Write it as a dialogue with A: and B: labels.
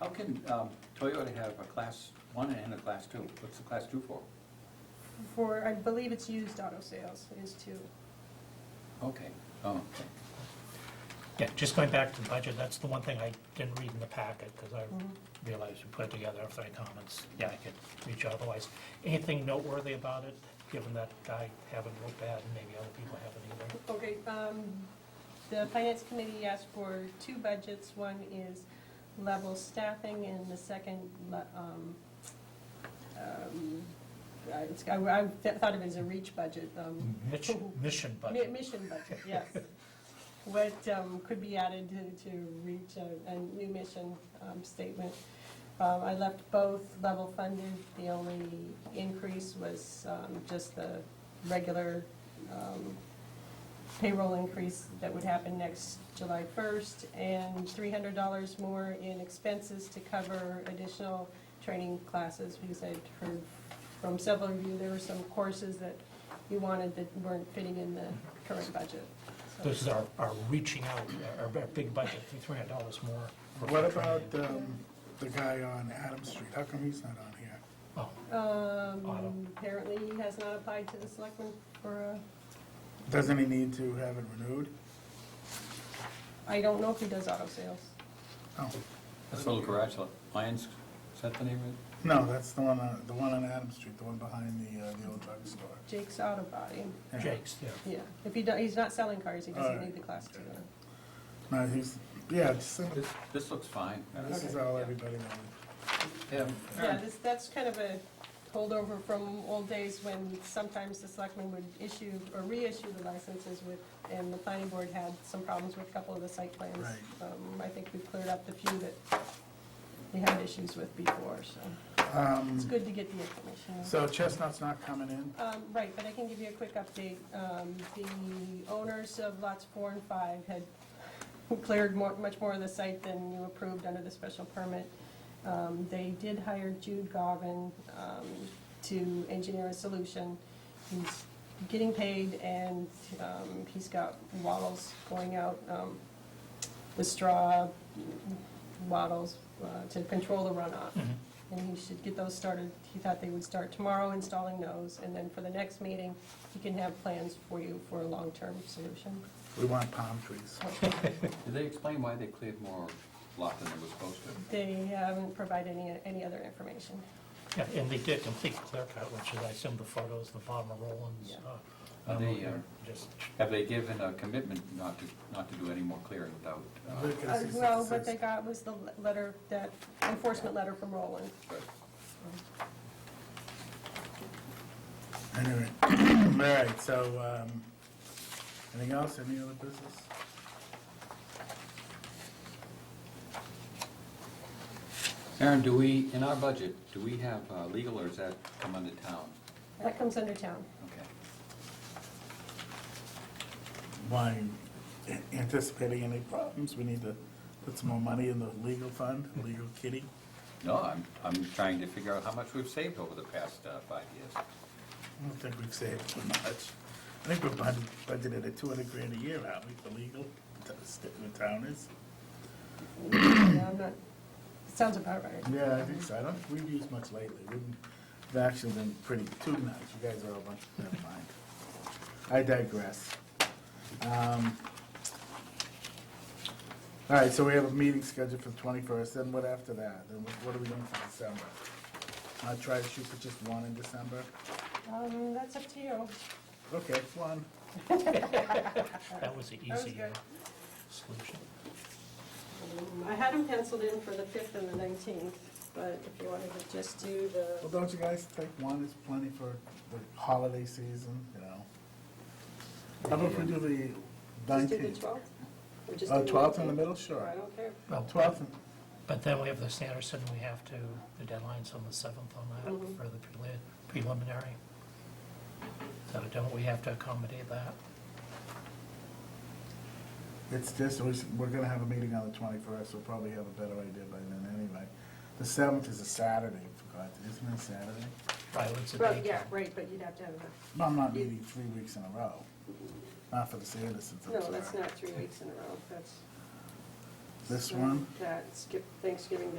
A: How can um, Toyota have a class one and a class two? What's the class two for?
B: For, I believe it's used auto sales is two.
A: Okay, oh, okay.
C: Yeah, just going back to the budget, that's the one thing I didn't read in the packet, because I realized we put it together after I comments. Yeah, I could reach out otherwise. Anything noteworthy about it, given that I haven't looked at, and maybe other people haven't either?
B: Okay, um, the finance committee asked for two budgets. One is level staffing and the second, le- um, um, uh, it's- I I thought of it as a reach budget. um,
C: Mitch- Mission
B: Mi-
C: budget.
B: Mission budget, yes. What um, could be added to, to reach a, a new mission um, statement. Um, I left both level funded. The only increase was um, just the regular um, payroll increase that would happen next July 1st, and $300 more in expenses to cover additional training classes, because I'd heard from several of you, there were some courses that you wanted that weren't fitting in the current budget. So-
C: This is our, our reaching out, our, our big budget, three hundred dollars more. for
D: What
C: training.
D: about um, the guy on Adam Street? How come he's not on here?
C: Oh, Auto.
B: Um, Apparently, he has not applied to the selectmen for a,
D: Doesn't he need to have it renewed?
B: I don't know if he does auto sales.
D: Oh,
A: That's a little garage, lot. Lions, is that the name of it?
D: no, that's the one, on- the one on Adam Street, the one behind the, uh, the old drugstore.
B: Jake's Auto Body,
D: Yeah.
C: Jake's, yeah.
B: yeah. If he, do- he's not selling cars, he doesn't need the class two.
D: No, he's, yeah, just send it-
A: This, this looks fine. Um,
D: this is all everybody knows.
A: Yeah.
B: Yeah, this, that's kind of a holdover from old days when sometimes the selectmen would issue or reissue the licenses with, and the planning board had some problems with a couple of the site plans.
D: Right.
B: Um, I think we cleared up the few that we had issues with before, so it's
D: Um,
B: good to get the information.
D: So Chestnut's not coming in?
B: Um, Right, but I can give you a quick update. Um, The owners of lots four and five had cleared more- much more of the site than you approved under the special permit. Um, They did hire Jude Garvin um, to engineer a solution. He's getting paid, and um, he's got wattles going out um, with straw wattles uh, to control the runoff. And he should get those started, he thought they would start tomorrow installing those, and then for the next meeting, he can have plans for you for a long-term solution.
D: We want palm trees.
B: Uh,
A: Did they explain why they cleared more lot than they were supposed to?
B: They haven't provided any, any other information.
C: Yeah, and they did complete clear cut, which is, I assume the photos, the farmer Rollins.
B: Yeah.
C: uh,
A: Are they, uh,
C: Just,
A: Have they given a commitment not to, not to do any more clearing without? uh,
D: Look at
B: Uh,
D: this,
B: Well,
D: it
B: what
D: says-
B: they got was the letter, that enforcement letter from Roland.
A: but-
D: Anyway, all right, so, um, anything else, any other business?
A: Aaron, do we, in our budget, do we have uh, legal or is that come under town?
B: That comes under town.
A: Okay.
D: Why, anticipating any problems, we need to put some more money in the legal fund, legal kitty.
A: No, I'm, I'm trying to figure out how much we've saved over the past uh, five years.
D: I don't think we've saved too much. I think we're budget- budgeted at two hundred grand a year, aren't we, for legal, t- st- the town is?
B: Yeah, I'm not, sounds about right.
D: Yeah, I think so, I don't, think we've used much lately, we've actually been pretty, too much, you guys are all a bunch, never mind. I digress. Um, All right, so we have a meeting scheduled for the twenty-first, then what after that, then what- what are we doing for December? I try to shoot for just one in December,
B: Um, That's up to you.
D: okay, one.
C: that was the
B: was
C: easy uh,
B: good.
C: solution.
B: Um, I had them penciled in for the 5th and the 19th, but if you wanted to just do the
D: Well, don't you guys think one is plenty for the holiday season, you know? How about if we do the
B: Just do the
D: nineteenth?
B: 12th? Or just
D: Uh,
B: do
D: 12th in the
B: 19th?
D: middle, sure.
B: I don't care.
C: Well,
D: Twelfth,
C: But then we have the Sanderson, we have to, the deadline's on the 7th on
B: Mm-hmm.
C: that for the preli- preliminary. So don't we have to accommodate that?
D: it's just, we s- we're gonna have a meeting on the twenty-first, we'll probably have a better idea by then anyway. The seventh is a Saturday, for God's, isn't it a Saturday?
C: Right, what's the
B: Right,
C: date?
B: yeah, right, but you'd have to have a,
D: Well, I'm not meeting three weeks in a row, not for the Sandersons, I'm
B: no, that's
D: sorry.
B: not three weeks in a row, that's.
D: This one?
B: That, skip Thanksgiving